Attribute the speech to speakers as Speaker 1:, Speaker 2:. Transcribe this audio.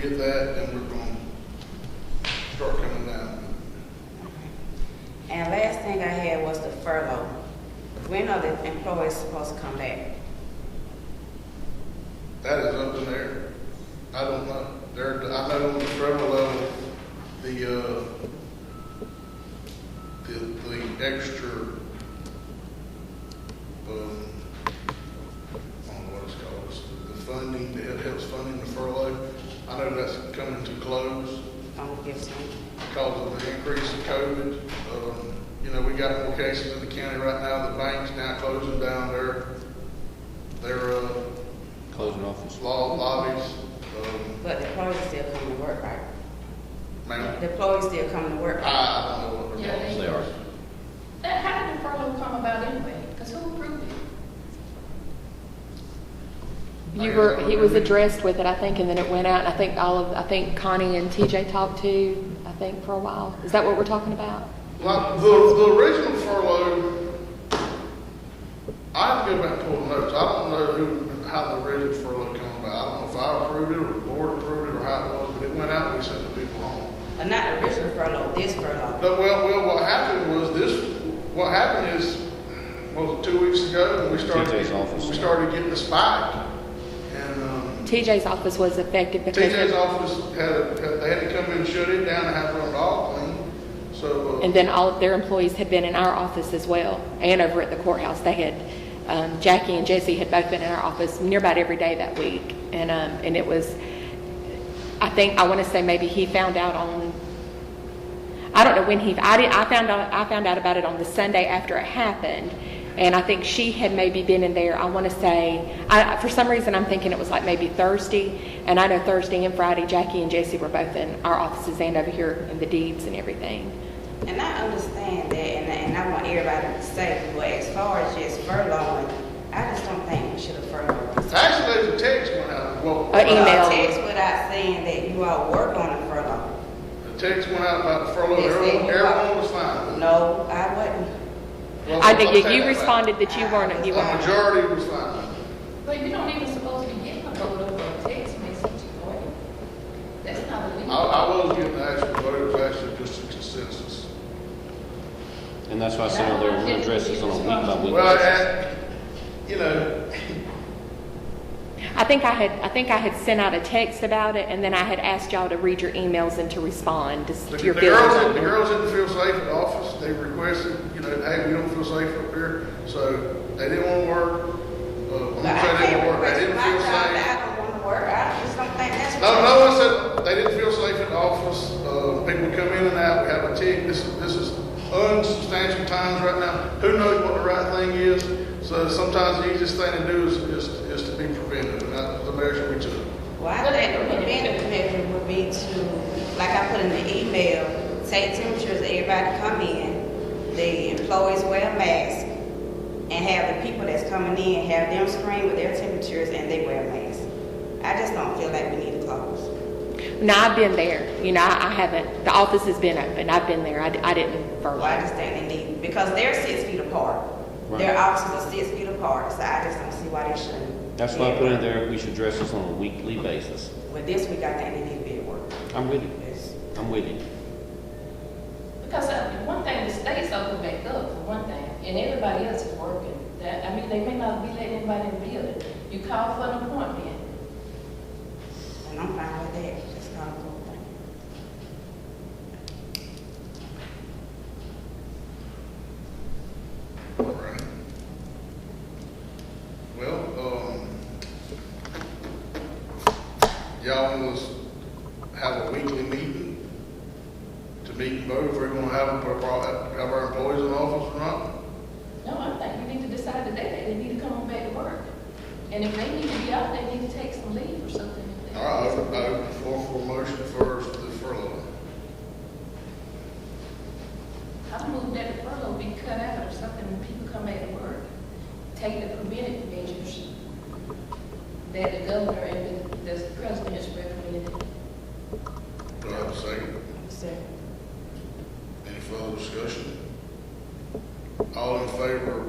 Speaker 1: get that, then we're gonna start coming down.
Speaker 2: And last thing I had was the furlough. When are the employees supposed to come back?
Speaker 1: That is up in there. I don't know. There, I know on the federal level, the, uh, the, the extra, um, I don't know what it's called, It's the- the funding, the helps funding the furlough. I know that's coming to close
Speaker 2: Don't give some,
Speaker 1: because of the increase in COVID. Um, you know, we got more cases in the county right now. The bank's now closing down their, their, uh,
Speaker 3: Closing office.
Speaker 1: law lobbies, um,
Speaker 2: but the employees still come to work, right?
Speaker 1: man,
Speaker 2: The employees still come to work. Uh, right?
Speaker 1: I don't know what they're
Speaker 3: Yes,
Speaker 1: called.
Speaker 3: They are.
Speaker 4: That, how did the furlough come about anyway? Because who approved it?
Speaker 5: You were, he was addressed with it, I think, and then it went out, and I think all of, I think Connie and TJ talked to, I think, for a while. Is that what we're talking about?
Speaker 1: Like, the, the original furlough, I have to go back and pull the notes, I don't know who, how the original furlough came about, I don't know if I approved it, or the board approved it, or how it was, but it went out, and we sent the people home.
Speaker 2: But not the original furlough, this furlough.
Speaker 1: But, well, well, what happened was this, what happened is, what was it two weeks ago, we started,
Speaker 3: TJ's office.
Speaker 1: we started getting the spike, and, um,
Speaker 5: TJ's office was affected because.
Speaker 1: TJ's office had, had- they had to come in and shut it down and have it all clean, so. uh,
Speaker 5: And then all of their employees had been in our office as well, and over at the courthouse. They had, um, Jackie and Jesse had both been in our office near about every day that week. And, um, and it was, I think, I want to say maybe he found out on, I don't know when he, I did, I found out, I found out about it on the Sunday after it happened. And I think she had maybe been in there, I want to say, I, for some reason, I'm thinking it was like maybe Thursday. And I know Thursday and Friday, Jackie and Jesse were both in our offices and over here in the deeds and everything.
Speaker 2: And I understand that, and, and I want everybody to be safe, but as far as just furloughing, I just don't think we should have furloughed.
Speaker 1: Actually, there's a text went out, well,
Speaker 5: Uh,
Speaker 1: the
Speaker 5: email.
Speaker 2: Text without saying that you all work on a furlough.
Speaker 1: text went out about the furlough,
Speaker 2: They said
Speaker 1: everyone,
Speaker 2: you-
Speaker 1: everyone was fine. with it.
Speaker 2: No, I wouldn't.
Speaker 1: Well,
Speaker 5: I
Speaker 1: I'll
Speaker 5: think
Speaker 1: take that
Speaker 5: you
Speaker 1: back.
Speaker 5: responded that you weren't,
Speaker 1: The
Speaker 5: you weren't.
Speaker 1: majority was fine. with it.
Speaker 4: But you don't even supposed to be getting a photo or a text message or it. That's not
Speaker 1: I,
Speaker 4: illegal.
Speaker 1: I was getting the actual vote, it was actually just a consensus.
Speaker 3: And that's why I said earlier, we're gonna address this on a week by week
Speaker 1: Well,
Speaker 3: basis.
Speaker 1: and, you know,
Speaker 5: I think I had, I think I had sent out a text about it, and then I had asked y'all to read your emails and to respond to s-
Speaker 1: the
Speaker 5: to
Speaker 1: the
Speaker 5: your feelings.
Speaker 1: girls, the
Speaker 5: on it.
Speaker 1: girls didn't feel safe at the office, they requested, you know, hey, we don't feel safe up here, so they didn't wanna work. Uh, I'm
Speaker 2: But I
Speaker 1: gonna say they
Speaker 2: can't
Speaker 1: didn't work, they
Speaker 2: request
Speaker 1: didn't
Speaker 2: my
Speaker 1: feel
Speaker 2: job
Speaker 1: safe.
Speaker 2: that I don't want to work. I just don't think that's.
Speaker 1: No,
Speaker 2: right.
Speaker 1: no one said they didn't feel safe in the office. Uh, people come in and out. We have a tick. This, this is unsubstantial times right now. Who knows what the right thing is? So sometimes the easiest thing to do is, is, is to be preventive, and that's the measure we took.
Speaker 2: Well, I think the preventive measure would be to, like I put in the email, take temperatures, of everybody come in, the employees wear a mask, and have the people that's coming in, have them screen with their temperatures and they wear a mask. I just don't feel like we need to close.
Speaker 5: Now, I've been there, you know, I I haven't, the office has been open, I've been there, I, d- I didn't
Speaker 2: Well, I
Speaker 5: furlough.
Speaker 2: just think they need, because they're six feet apart. Their
Speaker 3: Right.
Speaker 2: offices are six feet apart, so I just don't see why they shouldn't.
Speaker 3: That's why I put in there, we should address this on a weekly basis.
Speaker 2: But this week, I think they need to be at work.
Speaker 3: I'm with you.
Speaker 2: It's-
Speaker 3: I'm with you.
Speaker 4: Because uh, one thing, the state's open back up for one thing, and everybody else is working. That, I mean, they may not be letting anybody in the building. You call for an appointment.
Speaker 2: And I'm fine with that, just kind of go with it.
Speaker 1: All right. Well, um, y'all want us to have a weekly meeting to meet and vote if we're gonna have, our- have our employees in office or not?
Speaker 4: No, I think we need to decide today that they need to come on back to work. And if they need to be out, they need to take some leave or something. if they-
Speaker 1: All right, I open, I open the floor for a motion first, the furlough.
Speaker 4: I move that the furlough be cut out or something when people come back to work. Take the preventive measures that the governor and the- the president has recommended.
Speaker 1: Do I have a second?
Speaker 2: So-
Speaker 1: Any further discussion? All in favor um,
Speaker 3: Uh,
Speaker 4: Uh,